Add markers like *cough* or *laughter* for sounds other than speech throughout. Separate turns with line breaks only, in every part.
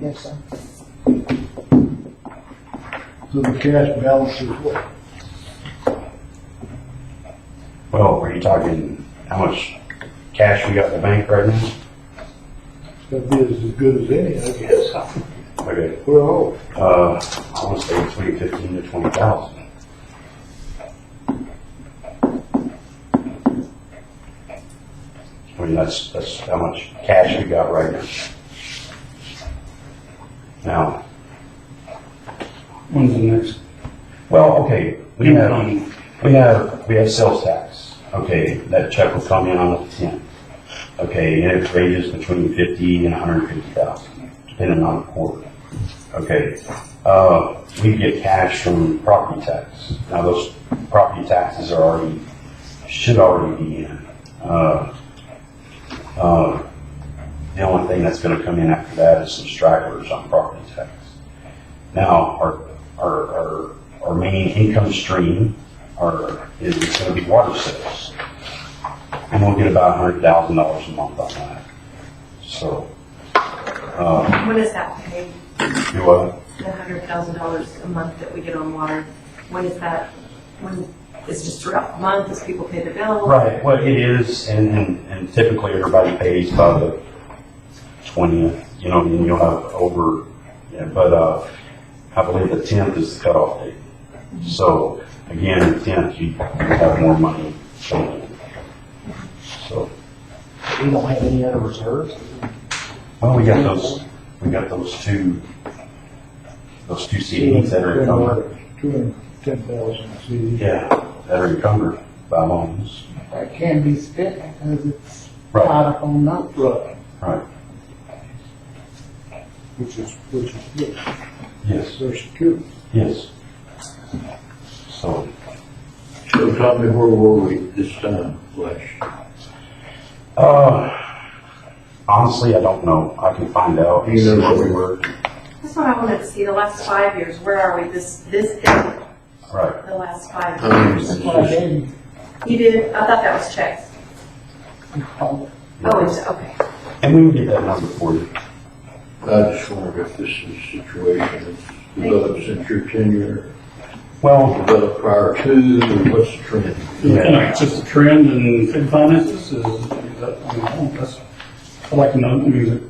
Yes, sir.
So the cash balance is what?
Well, were you talking how much cash we got in the bank right now?
That'd be as good as any, I guess.
Okay,
Well,
uh, I want to say between fifteen to twenty thousand. I mean, that's, that's how much cash we got right now. Now,
When's the next?
well, okay, we have, we have, we have sales tax. Okay, that check will come in on the tenth. Okay, and it ranges between fifty and hundred and fifty thousand, depending on the quarter. Okay, uh, we get cash from property tax. Now, those property taxes are already, should already be in. Uh, uh, The only thing that's gonna come in after that is some stragglers on property tax. Now, our, our, our, our main income stream are, is gonna be water sales. And we'll get about hundred thousand dollars a month on that. So, uh,
When is that paid?
do what?
The hundred thousand dollars a month that we get on water, when is that, when, it's just throughout the month, as people pay the bill?
Right, well, it is, and, and and typically everybody pays by the twentieth, you know, and you'll have over, yeah, but, uh, I believe the tenth is the cutoff date. So, again, the tenth, you have more money. So,
We don't have any other reserves?
well, we got those, we got those two, those two CDs that are encumbered.
Two hundred ten thousand CDs.
Yeah, that are encumbered by loans.
That can be spent because it's
Right,
tied up on notes.
Right,
right,
which is, which is good,
yes,
they're secure.
yes. So.
So Tommy, where were we this time last? year?
Uh, honestly, I don't know. I can find out.
You know
what
what we
were.
That's what I wanted to see, the last five years, where are we, this, this is
Right.
the last five
I mean,
years.
That's
it's
what I
just-
did.
You did, I thought that was checks. Oh, it's, okay.
And we can get that number for you.
I just wondered if this is a situation that's developed since your tenure,
Well,
developed prior to, or what's the trend?
yeah,
Yeah, it's just a trend in fin finances, is, is that, I don't know, that's, I like to know, I mean, is it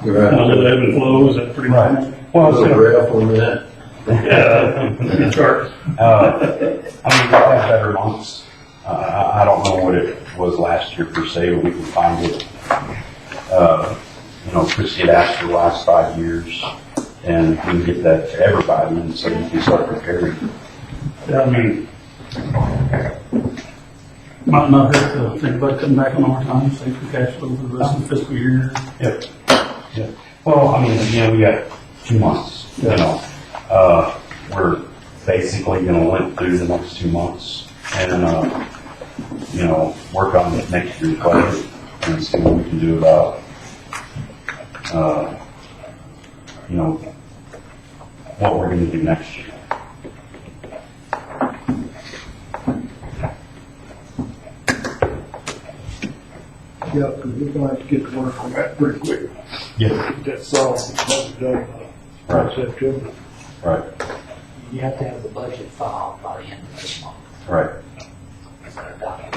kind of
Right.
little ebb and flow, is that pretty much?
right. Well,
Little
so,
graph on that?
Yeah, it's hard.
uh, I mean, we'll have better months. Uh, I, I don't know what it was last year per se, but we can find it. Uh, you know, Christie had asked for the last five years and we can get that to everybody and so you can start preparing.
Yeah, I mean, might not hurt to think about cutting back on overtime, save some cash flow for the rest of the fiscal year.
Yep, yep. Well, I mean, again, we got two months, you know. Uh, we're basically gonna limp through the next two months and, uh, you know, work on next year's budget and see what we can do about, uh, you know, what we're gonna do next year.
Yeah, because we're gonna have to get to work on that pretty quick.
Yeah.
That's solved, probably done by
Right,
September.
right,
You have to have the budget filed by the end of this month.
right.
It's gonna document.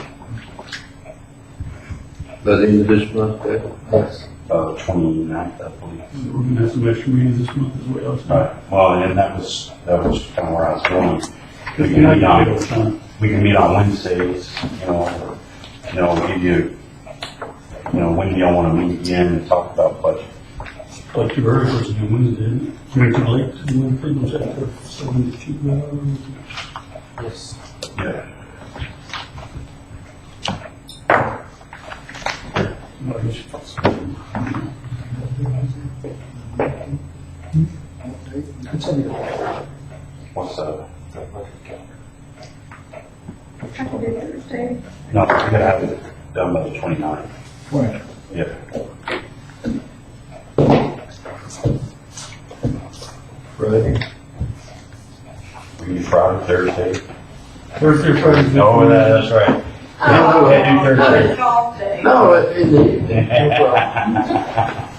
By the end of this month, that?
Yes.
Uh, twenty-ninth, I believe.
So We're gonna have some extra meetings this month as well. so-
Right, well, and that was, that was kind of where I was going.
Cause you're not gonna get overtime.
we can meet on Wednesdays, you know, or, you know, give you, you know, when do y'all wanna meet again and talk about budget?
Like your very first due Wednesday, isn't it? We're too late, so we're pretty much after seven to two hours.
Yes.
Yeah.
Well, I guess you thought so.
It's in your,
What's uh, that?
I can do Thursday.
No, we gotta have it done by the twenty-ninth.
Right.
Yeah.
Friday?
We can do Friday, Thursday.
Thursday, Friday.
No, that's right. *laughs*
Oh,
okay, do Thursday.
golf day.
No, in the evening.